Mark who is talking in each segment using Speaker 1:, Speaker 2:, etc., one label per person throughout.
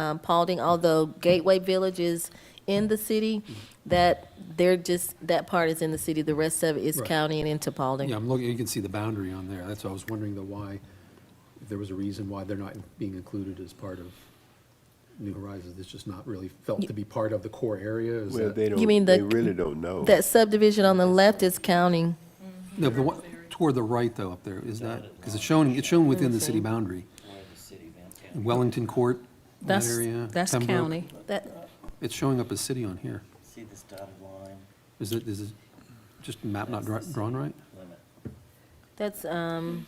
Speaker 1: um, Paulding, although Gateway Village is in the city, that they're just, that part is in the city, the rest of it is
Speaker 2: Right.
Speaker 1: county and into
Speaker 2: Yeah,
Speaker 1: Paulding.
Speaker 2: I'm looking, you can see the boundary on there. That's why I was wondering though why, if there was a reason why they're not being included as part of New Horizons. It's just not really felt to be part of the core area. Is
Speaker 3: Well,
Speaker 2: that-
Speaker 3: they
Speaker 1: mean
Speaker 3: don't,
Speaker 1: the-
Speaker 3: they really don't know.
Speaker 1: That subdivision on the left is county.
Speaker 2: No, the one toward the right though up there, is that, because it's shown, it's shown within the city boundary.
Speaker 4: where the city events.
Speaker 2: Wellington Court, that
Speaker 5: That's,
Speaker 2: area.
Speaker 5: that's
Speaker 2: Pembroke.
Speaker 5: county.
Speaker 1: That,
Speaker 2: It's showing up as city on here.
Speaker 4: See this dotted line
Speaker 2: Is it, is it just map not dra- drawn right?
Speaker 4: limit?
Speaker 1: that's, um,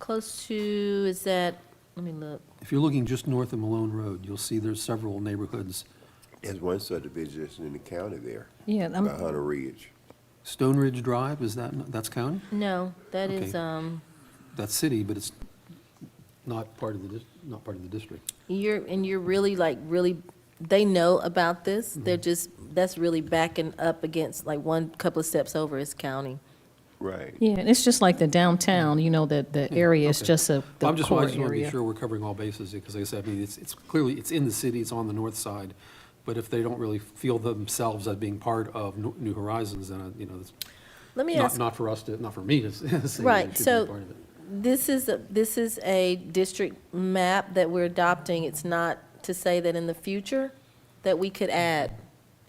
Speaker 1: close to, is that, let me look.
Speaker 2: If you're looking just north of Malone Road, you'll see there's several neighborhoods.
Speaker 3: There's one subdivision that's in the county there,
Speaker 5: Yeah,
Speaker 1: Uh-huh.
Speaker 3: by
Speaker 5: I'm,
Speaker 3: Hunter Ridge.
Speaker 2: Stone Ridge Drive, is that, not- that's county?
Speaker 1: No, that is,
Speaker 2: Okay.
Speaker 1: um,
Speaker 2: That's city, but it's not part of the, dis- not part of the district.
Speaker 1: you're, and you're really like, really, they know about this.
Speaker 2: Mm-hmm.
Speaker 1: They're just, that's really backing up against, like, one couple of steps over is county.
Speaker 3: Right.
Speaker 5: yeah, and it's just like the downtown, you know, that the area is
Speaker 2: okay.
Speaker 5: just a, the
Speaker 2: I'm just, I
Speaker 5: core
Speaker 2: just want to be
Speaker 5: area.
Speaker 2: sure we're covering all bases, because like I said, I mean, it's, it's clearly, it's in the city, it's on the north side, but if they don't really feel themselves as being part of New New Horizons, then, uh, you know, it's
Speaker 1: Let me
Speaker 2: not,
Speaker 1: ask,
Speaker 2: not for us to, not for me to say that
Speaker 1: Right,
Speaker 2: it should be
Speaker 1: so-
Speaker 2: part of it.
Speaker 1: this is, a- this is a district map that we're adopting. It's not to say that in the future that we could add.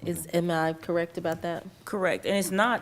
Speaker 1: Is, am I correct about that?
Speaker 6: Correct, and it's not,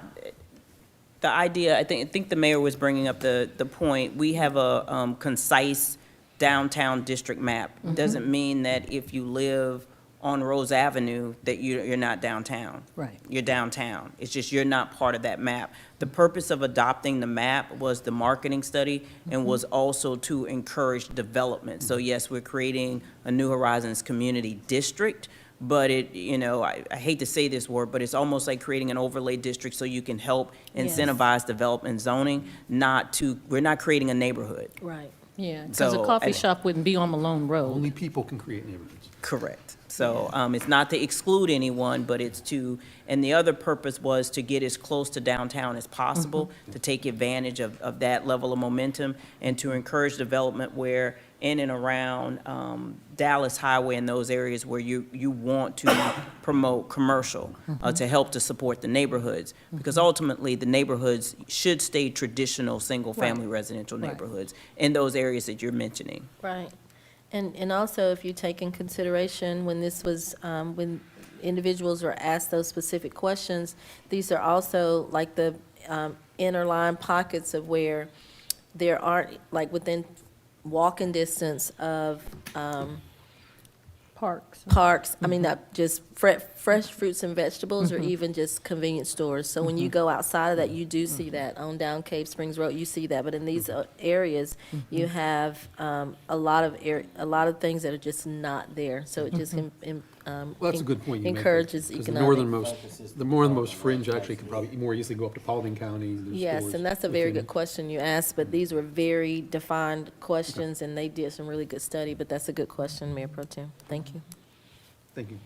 Speaker 6: the idea, I think, I think the mayor was bringing up the, the point, we have a um, concise downtown district map. Doesn't mean that if you live on Rose Avenue, that you, you're not downtown.
Speaker 5: Right.
Speaker 6: You're downtown, it's just you're not part of that map. The purpose of adopting the map was the marketing study and was also to encourage development. So yes, we're creating a New Horizons Community District, but it, you know, I, I hate to say this word, but it's almost like creating an overlay district so you can help
Speaker 1: Yes.
Speaker 6: incentivize development zoning, not to, we're not creating a neighborhood.
Speaker 1: Right.
Speaker 5: Yeah, because a
Speaker 6: So,
Speaker 5: coffee
Speaker 6: and-
Speaker 5: shop wouldn't be on Malone Road.
Speaker 2: Only people can create neighborhoods.
Speaker 6: Correct. So um, it's not to exclude anyone, but it's to, and the other purpose was to get as close to downtown as possible,
Speaker 5: Mm-hmm.
Speaker 6: to take advantage of, of that level of momentum and to encourage development where in and around um, Dallas Highway and those areas where you, you want to promote commercial,
Speaker 5: Mm-hmm.
Speaker 6: uh, to help to support the neighborhoods. Because ultimately, the neighborhoods should stay traditional, single-family residential
Speaker 5: Right.
Speaker 6: neighborhoods in those areas that you're mentioning.
Speaker 1: Right. And, and also, if you take in consideration, when this was, um, when individuals were asked those specific questions, these are also like the um, inner line pockets of where there aren't, like within walking distance of
Speaker 5: Parks.
Speaker 1: parks, I
Speaker 2: Mm-hmm.
Speaker 1: mean, not just fre- fresh fruits and vegetables or even just convenience stores. So
Speaker 2: Mm-hmm.
Speaker 1: when you go outside of that, you do see that on down Cave Springs Road, you see that. But in these uh, areas,
Speaker 2: Mm-hmm.
Speaker 1: you have um, a lot of air, a lot of things that are just not there. So it just en- en- um,
Speaker 2: Mm-hmm. Well, that's a good point you make. there,
Speaker 1: encourages
Speaker 2: 'cause
Speaker 1: economic.
Speaker 2: The northernmost, the northernmost fringe actually could probably more easily go up to Paulding County. There's
Speaker 1: Yes,
Speaker 2: stores
Speaker 1: and that's a very
Speaker 2: within-
Speaker 1: good question you asked, but these were very defined questions, and they did some really good study, but that's a good question, Mayor Pro Tem. Thank you.
Speaker 2: Thank you.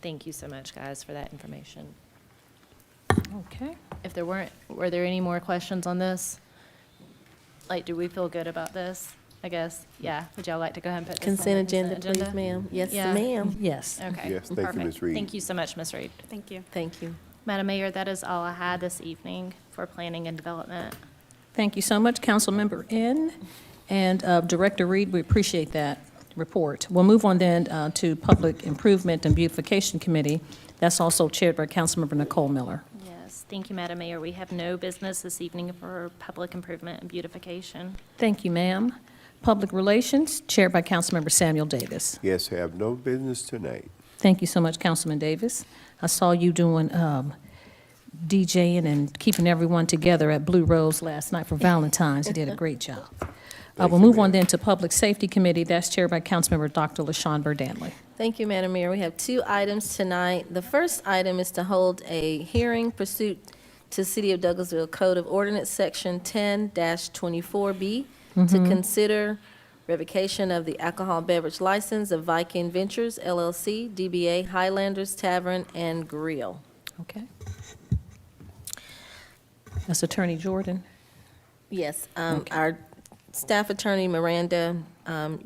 Speaker 7: Thank you so much, guys, for that information.
Speaker 5: Okay.
Speaker 7: If there weren't, were there any more questions on this? Like, do we feel good about this? I guess, yeah. Would y'all like to go ahead and put this on the
Speaker 1: Consent agenda, please,
Speaker 7: agenda?
Speaker 1: ma'am. Yes,
Speaker 7: Yeah.
Speaker 1: ma'am.
Speaker 5: Yes.
Speaker 7: Okay.
Speaker 3: Yes, thank you,
Speaker 7: perfect.
Speaker 3: Ms. Reed.
Speaker 7: Thank you so much, Ms. Reed.
Speaker 8: Thank you.
Speaker 1: Thank you.
Speaker 7: Madam Mayor, that is all I had this evening for planning and development.
Speaker 5: Thank you so much, Councilmember N. And uh, Director Reed, we appreciate that report. We'll move on then uh, to Public Improvement and Beautification Committee. That's also chaired by Councilmember Nicole Miller.
Speaker 7: Yes, thank you, Madam Mayor. We have no business this evening for public improvement and beautification.
Speaker 5: Thank you, ma'am. Public Relations, chaired by Councilmember Samuel Davis.
Speaker 3: Yes, have no business tonight.
Speaker 5: Thank you so much, Councilman Davis. I saw you doing um, DJing and keeping everyone together at Blue Rose last night for Valentine's. You did a great job. Uh,
Speaker 3: Thank
Speaker 5: We'll
Speaker 3: you,
Speaker 5: move on
Speaker 3: ma'am.
Speaker 5: then to Public Safety Committee. That's chaired by Councilmember Dr. LaShawn Burdanley.
Speaker 1: Thank you, Madam Mayor. We have two items tonight. The first item is to hold a hearing pursuant to City of Douglasville Code of Ordinance, Section 10-24B, to consider revocation of the alcohol beverage license of Viking Ventures LLC, DBA Highlanders Tavern and Grill.
Speaker 5: Okay. That's Attorney Jordan.
Speaker 1: Yes, um, our staff attorney, Miranda um,